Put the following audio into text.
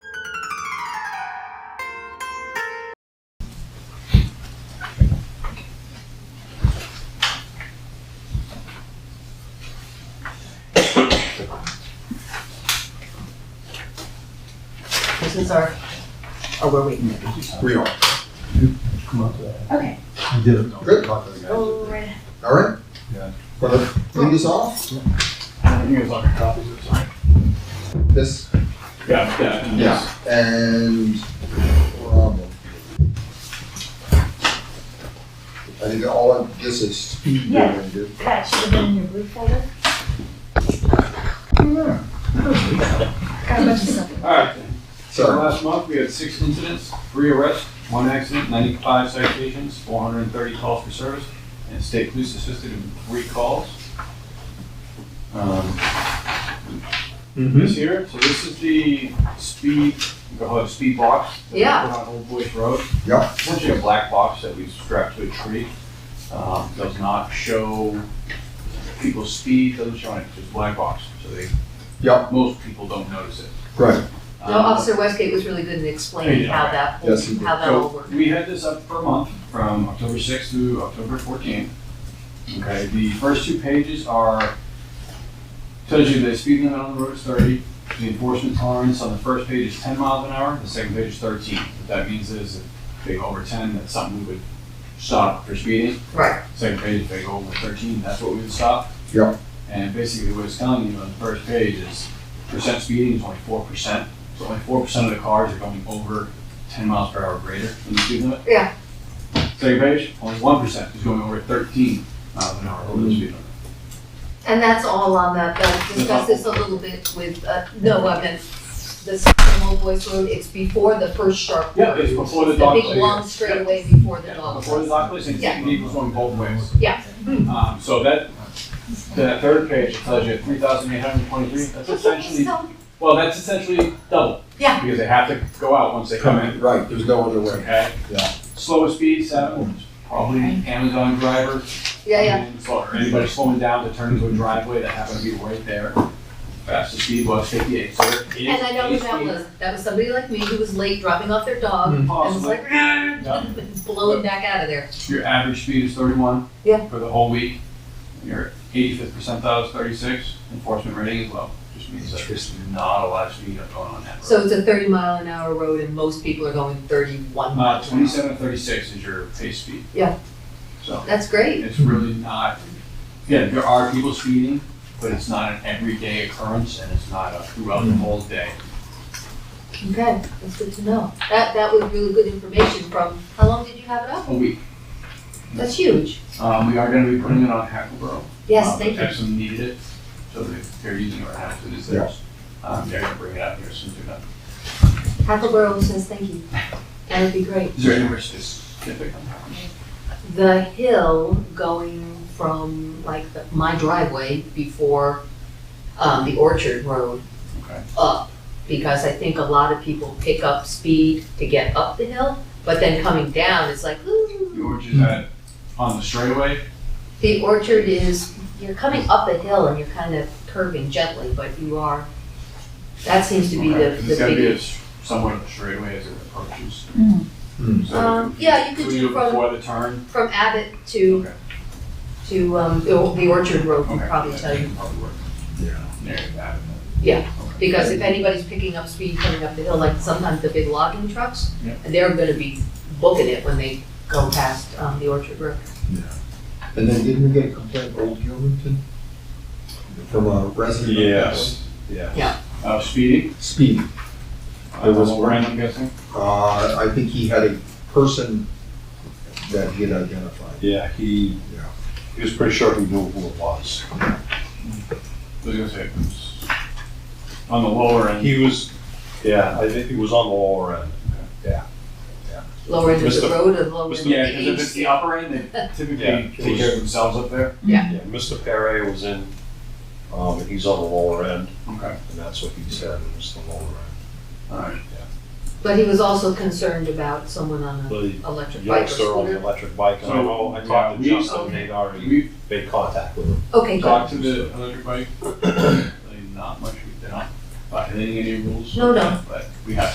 questions or, or were we? We are. Come up to that. Okay. You did it. Good. Talk to the guy. Go Oh, right All right? Yeah. Want to lead us off? You guys want copies of something? This, Yeah, yeah. yeah, and problem. I think all of this is speed. Yeah. going, dude. That should have been in your blue folder. Yeah. Got a bunch of stuff. Alright, so So, last month we had six incidents, three arrests, one accident, ninety-five citations, four hundred and thirty calls for service, and state police assisted in three calls. Um, This here, so this is the speed, go ahead, speed box. that we Yeah. put On Old Boys Road. yeah, essentially a black box that we strapped to a tree. Um, does not show people's speed, doesn't show anything, it's just a black box, so they, yeah, most people don't notice it. right, No, Um, Officer Westgate was really good in explaining how that, whole- Yes, he did. how that all So worked. we had this up for a month, from October sixth to October fourteenth. Okay, the first two pages are, tells you the speed limit on the road is thirty, the enforcement tolerance on the first page is ten miles an hour, the second page is thirteen. What that means is if they go over ten, that's something we would stop for speeding. Right. Second page, if they go over thirteen, that's what we would stop. Yeah. And basically what it's telling you on the first page is percent speeding is only four percent. So only four percent of the cars are going over ten miles per hour greater than the speed limit. Yeah. Second page, only one percent is going over thirteen miles an hour over the speed limit. And that's all on that, they'll discuss this a little bit with, uh, no, I meant the Spring Old Boys Road, it's before the first sharp. Yeah, it's before the The dog. big long straightaway before the Yeah, dog. Before the dog place, and Yeah. vehicles going both ways. Yeah. Um, so that, that third page tells you three thousand eight hundred twenty-three, that's essentially, So, well, that's essentially double. Yeah. Because they have to go out once they come in. right, there's no other way. Okay. Yeah. Slowest speed, seven, probably Amazon driver. Yeah, yeah, and slower. Anybody slowing down to turn into a driveway that happened to be right there. Fastest speed was fifty-eight, so there is. and I know a who that speed was, that was somebody like me who was late dropping off their dog, and was Possibly. like, "Ah," Yeah. blow him back out of there. Your average speed is thirty-one. Yeah. For the whole week. Your eighty-fifth percentile is thirty-six, enforcement rating is low. Just means that there's not a lot of speed up going on that road. So it's a thirty mile an hour road and most people are going thirty-one Uh, miles an hour. twenty-seven, thirty-six is your pace speed. Yeah. So. That's great, It's really not, yeah, there are people speeding, but it's not an everyday occurrence and it's not a throughout the whole day. okay, that's good to know. That, that was really good information from, how long did you have it up? A week. That's huge. Um, we are gonna be putting it on Hackleboro. Yes, Um, thank you. Epsom needed it, so they- they're using it right now, so it is theirs. Um, they're gonna bring it out here as soon as they're done. Hackleboro says thank you. That'd be great. Is there anywhere specific on that? The hill going from like the- my driveway before um, the Orchard Road Okay. up. Because I think a lot of people pick up speed to get up the hill, but then coming down, it's like, ooh. The orchard's at, on the straightaway, The orchard is, you're coming up a hill and you're kind of curving gently, but you are, that seems to be the, okay, 'cause the it's gotta be big. a s- somewhat of a straightaway as it approaches. Mm. Mm. So Um, yeah, you could we do it from- Before the turn, From Abbott to, Okay. to, um, the the orchard road would okay. probably tell you. Probably work. Yeah. Near that. Because if anybody's picking up speed coming up the hill, like sometimes the big logging trucks, Yeah. they're gonna be booking it when they go past, um, the orchard road. And then didn't we get a complaint, Old Gilmanton? From a resident? of Yes, Yeah. yes. Uh, speeding? that Speed. There was Uh, one. Rand, I'm guessing? Uh, I think he had a person that he had identified. Yeah, he, Yeah. he was pretty sure he knew who it was. I was gonna say, on the lower end. He was, yeah, I think he was on the lower end. Lower end of the Mr. road and lower end of Yeah, because if it's the the east. upper end, they Yeah. typically take care of themselves up there. Yeah, Mr. Perry was in, um, and he's on the lower end, Okay. and that's what he said, it was the lower end. Alright. But he was also concerned about someone on an The electric bike or youngster on scooter. the electric bike, I know, I talked to Yeah, we- Justin, they'd already We've made contact with him. Okay, good. talked to the electric bike, really not much, we- they're not violating any rules. No, no. But we have